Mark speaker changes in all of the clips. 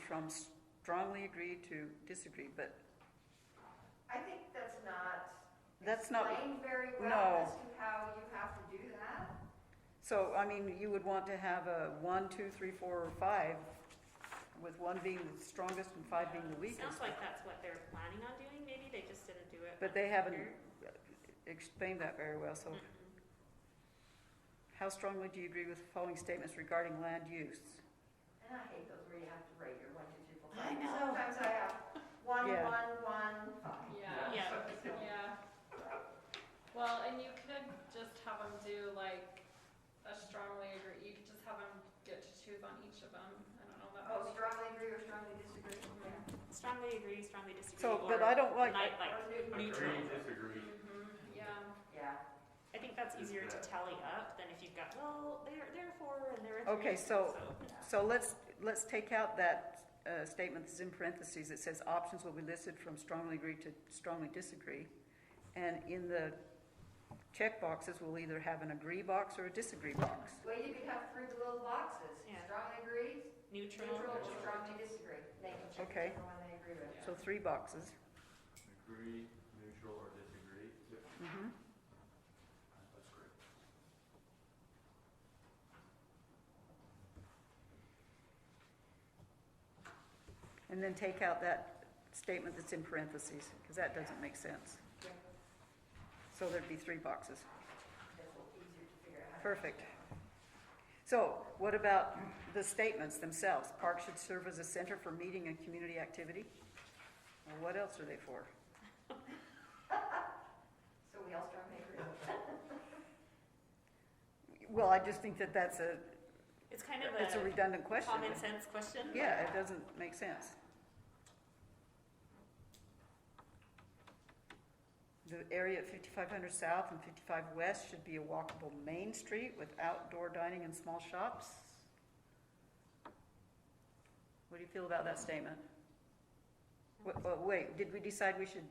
Speaker 1: from strongly agree to disagree, but
Speaker 2: I think that's not
Speaker 1: that's not,
Speaker 2: explained very
Speaker 1: no.
Speaker 2: well as to how you have to do that.
Speaker 1: so, I mean, you would want to have a one, two, three, four, or five, with one being the strongest and five being the
Speaker 3: Sounds
Speaker 1: weakest.
Speaker 3: like that's what they're planning on doing, maybe they just didn't do it.
Speaker 1: But they
Speaker 3: last
Speaker 1: haven't-
Speaker 3: year.
Speaker 1: Explained that very well, so
Speaker 3: Mm-mm.
Speaker 1: how strongly do you agree with the following statements regarding land use?
Speaker 2: And I hate those where you have to rate your one, two, three, four, five.
Speaker 3: I know.
Speaker 2: Sometimes I have one,
Speaker 1: Yeah.
Speaker 2: one, one, five.
Speaker 4: Yeah.
Speaker 3: Yeah.
Speaker 4: Yeah. Well, and you could just have them do like a strongly agree. You could just have them get to choose on each of them. I don't know. That
Speaker 2: Oh,
Speaker 4: would be-
Speaker 2: strongly agree or strongly disagree? Yeah.
Speaker 3: Strongly agree, strongly disagree.
Speaker 1: So, but I
Speaker 3: or
Speaker 1: don't like,
Speaker 3: Like, like,
Speaker 2: Or new-
Speaker 3: Neutral.
Speaker 5: Agree, disagree.
Speaker 4: Mhm, yeah.
Speaker 2: Yeah.
Speaker 3: I think that's easier to tally up than if you've got, well, they're, they're four and they're a three.
Speaker 1: Okay, so- so let's, let's take out that, uh, statement that's in parentheses, it says options will be listed from strongly agree to strongly disagree. And in the check boxes, we'll either have an agree box or a disagree box.
Speaker 2: Well, you could have three little boxes.
Speaker 3: Yeah.
Speaker 2: Strongly agree,
Speaker 3: Neutral.
Speaker 2: neutral, or strongly disagree. They can check
Speaker 1: Okay.
Speaker 2: whichever one they agree with.
Speaker 1: So three boxes.
Speaker 5: Agree, neutral, or disagree?
Speaker 1: Mhm.
Speaker 5: That's great.
Speaker 1: And then take out that statement that's in parentheses, because that doesn't make sense.
Speaker 2: Yeah.
Speaker 1: So there'd be three boxes.
Speaker 2: That's a little easier to figure out. how to-
Speaker 1: Perfect. So what about the statements themselves? Park should serve as a center for meeting and community activity? Well, what else are they for?
Speaker 2: So we all strongly agree.
Speaker 1: Well, I just think that that's a,
Speaker 3: It's kind of
Speaker 1: it's a
Speaker 3: a
Speaker 1: redundant question.
Speaker 3: common sense question. but-
Speaker 1: Yeah, it doesn't make sense. The area at fifty-five hundred south and fifty-five west should be a walkable main street with outdoor dining and small shops. What do you feel about that statement? Wait, uh, wait, did we decide we should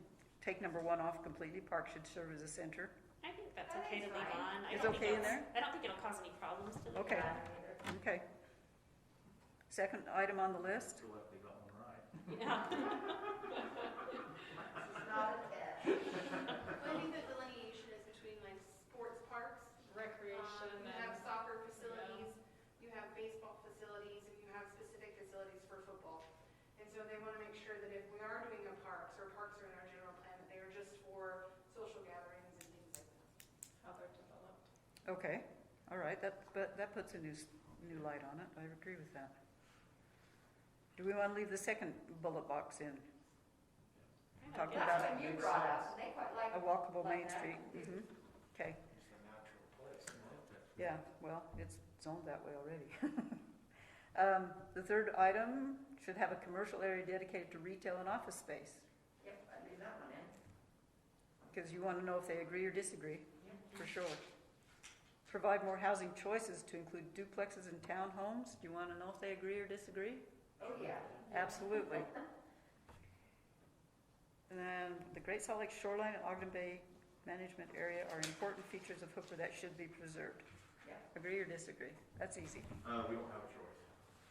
Speaker 1: take number one off completely? Park should serve as a center?
Speaker 3: I think that's
Speaker 2: I think
Speaker 3: okay to
Speaker 2: it's
Speaker 3: leave
Speaker 2: fine.
Speaker 3: on. I
Speaker 1: It's
Speaker 3: don't think
Speaker 1: okay in
Speaker 3: it'll- I don't think it'll cause any problems to leave
Speaker 1: Okay.
Speaker 3: on.
Speaker 1: Okay. Second item on the list?
Speaker 5: Still have they got one right.
Speaker 3: Yeah.
Speaker 2: This is not a test.
Speaker 6: I think the delineation is between like sports parks, um,
Speaker 4: Recreation
Speaker 6: you have
Speaker 4: and
Speaker 6: soccer facilities, you have baseball facilities, and you have specific facilities for football. And so they wanna make sure that if we are doing a parks, or parks are in our general plan, that they are just for social gatherings and things like that.
Speaker 4: how they're developed.
Speaker 1: Okay, all right, that, but that puts a new, s- new light on it, I agree with that. Do we wanna leave the second bullet box in, Talk
Speaker 3: Yeah.
Speaker 1: about-
Speaker 2: That's what you brought up, Oh. and they quite like
Speaker 1: a walkable
Speaker 2: Like
Speaker 1: main
Speaker 2: that?
Speaker 1: street? Mm-hmm, okay,
Speaker 5: It's a natural place.
Speaker 1: yeah, well, it's zoned that way already. Um, the third item should have a commercial area dedicated to retail and office space,
Speaker 2: Yep, I'd leave that one in.
Speaker 1: cause you wanna know if they agree or disagree, for sure. Provide more housing choices to include duplexes and townhomes, do you wanna know if they agree or disagree?
Speaker 2: Oh, yeah.
Speaker 1: Absolutely. And then the Great Salt Lake shoreline and Ogden Bay management area are important features of Hooper that should be preserved.
Speaker 2: Yeah.
Speaker 1: Agree or disagree? That's easy.
Speaker 5: Uh, we don't have a choice.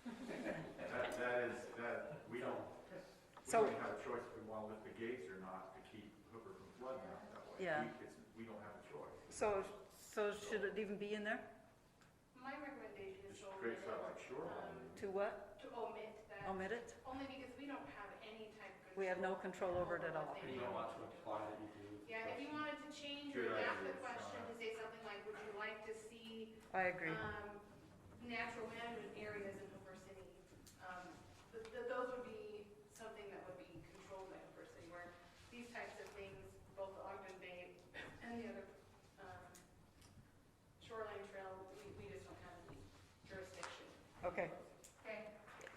Speaker 5: That, that is, that, we don't, we
Speaker 1: So-
Speaker 5: don't have a choice if we wanna lift the gates or not to keep Hooper from flooding out that way.
Speaker 1: Yeah.
Speaker 5: We- it's- We don't have a choice.
Speaker 1: So, so should it even be in there?
Speaker 6: My recommendation is
Speaker 5: Just
Speaker 6: to
Speaker 5: create
Speaker 6: omit,
Speaker 5: something like shoreline.
Speaker 1: To what?
Speaker 6: to omit that,
Speaker 2: Um,
Speaker 1: Omit it?
Speaker 6: only because we don't have any type of.
Speaker 1: We have no control over it at all.
Speaker 6: what they do.
Speaker 5: to apply that you do.
Speaker 6: Yeah, if you wanted to change or
Speaker 5: Good
Speaker 6: adapt the
Speaker 5: idea,
Speaker 6: question
Speaker 5: Sarah.
Speaker 6: to say something like, would you like to see
Speaker 1: I agree.
Speaker 6: um, natural management areas in Hooper City, um, th- th- those would be something that would be controlled by Hooper City, where these types of things, both the Ogden Bay and the other, um, shoreline trail, we, we just don't have any jurisdiction.
Speaker 1: Okay,
Speaker 2: Okay,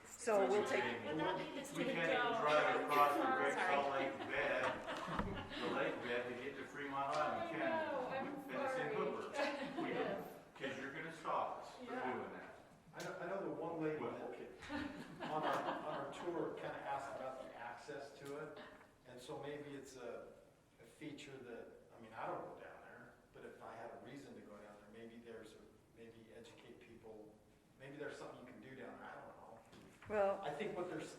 Speaker 1: so we'll take,
Speaker 3: Would that be this
Speaker 5: We
Speaker 3: taken
Speaker 5: can't even
Speaker 3: down?
Speaker 5: drive across the Great
Speaker 3: Sorry.
Speaker 5: Salt Lake bed, the lake bed to get to Fremont Island, can
Speaker 4: I know, Oh,
Speaker 5: we?
Speaker 4: I'm
Speaker 5: And it's in
Speaker 4: sorry.
Speaker 5: Hooper. We don't, cause you're gonna stop us from
Speaker 4: Yeah.
Speaker 5: doing that.
Speaker 7: I know, I know the one lady
Speaker 5: Well-
Speaker 7: that, on our, on our tour, kind of asked about the access to it, and so maybe it's a, a feature that, I mean, I don't go down there, but if I had a reason to go down there, maybe there's, a maybe educate people, maybe there's something you can do down there, I don't know.
Speaker 1: well,
Speaker 7: I think what they're, s-